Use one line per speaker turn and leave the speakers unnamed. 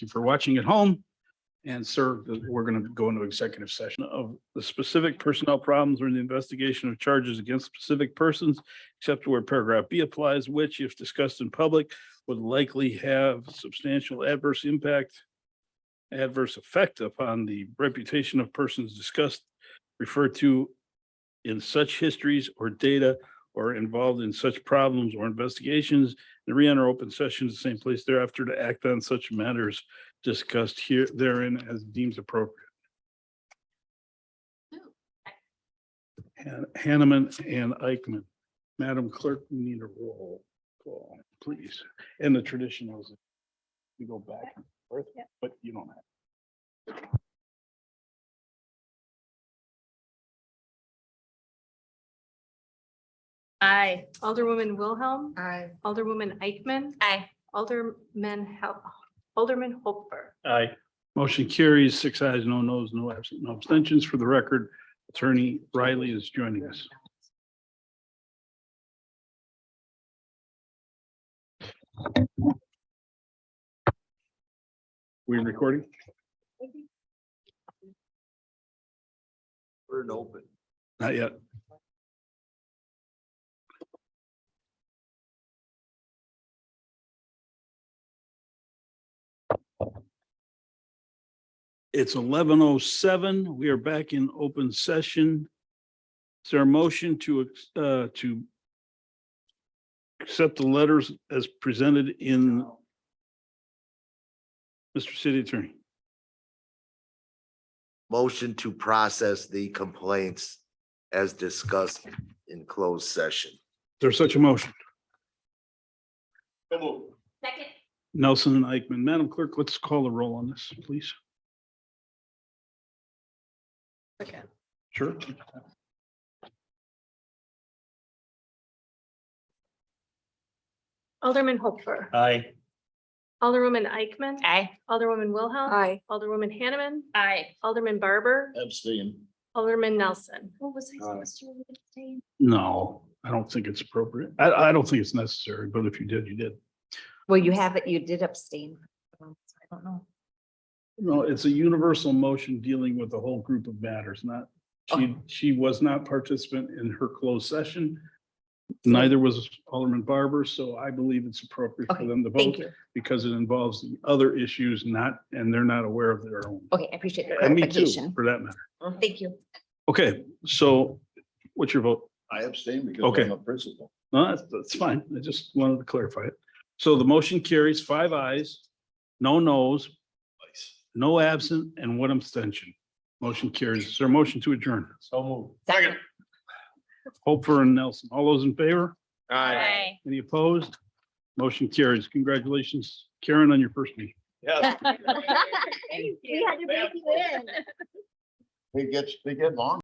you for watching at home. And sir, we're going to go into executive session of the specific personnel problems or the investigation of charges against specific persons, except where paragraph B applies, which if discussed in public would likely have substantial adverse impact, adverse effect upon the reputation of persons discussed, referred to in such histories or data or involved in such problems or investigations, and re-enter open session in the same place thereafter to act on such matters discussed here therein as deems appropriate. Han- Hanneman and Eichmann. Madam Clerk, we need a roll call, please. And the traditional is we go back and forth,
Yep.
but you don't have.
Aye. Alderwoman Wilhelm.
Aye.
Alderwoman Eichmann.
Aye.
Alderman, Hel- Alderman Hopper.
Aye. Motion carries six ayes, no nos, no absent, no abstentions. For the record, Attorney Riley is joining us. We're recording?
We're in open.
Not yet. It's eleven oh seven. We are back in open session. Is there a motion to, uh, to accept the letters as presented in Mr. City Attorney?
Motion to process the complaints as discussed in closed session.
There's such a motion.
Second.
Nelson and Eichmann. Madam Clerk, let's call the roll on this, please.
Okay.
Sure.
Alderman Hopper.
Aye.
Alderwoman Eichmann.
Aye.
Alderwoman Wilhelm.
Aye.
Alderwoman Hanneman.
Aye.
Alderman Barber.
Abstain.
Alderman Nelson.
What was
Aye.
to say?
No, I don't think it's appropriate. I, I don't think it's necessary, but if you did, you did.
Well, you have it, you did abstain. Um, so I don't know.
No, it's a universal motion dealing with the whole group of matters, not, she, she was not participant in her closed session. Neither was Alderman Barber, so I believe it's appropriate for
Okay,
them to
Thank
vote
you.
because it involves the other issues not, and they're not aware of their own.
Okay, I appreciate the
And me too,
clarification.
for that matter.
Thank you.
Okay, so what's your vote?
I abstain because
Okay. I'm
a principal.
No, that's, that's fine. I just wanted to clarify it. So the motion carries five ayes, no nos, no absent, and one abstention. Motion carries. Is there a motion to adjourn?
So moved.
Second.
Hopper and Nelson, all those in favor?
Aye.
Any opposed? Motion carries. Congratulations, Karen, on your first meeting.
Yeah,
We had to break you in.
they get, they get long.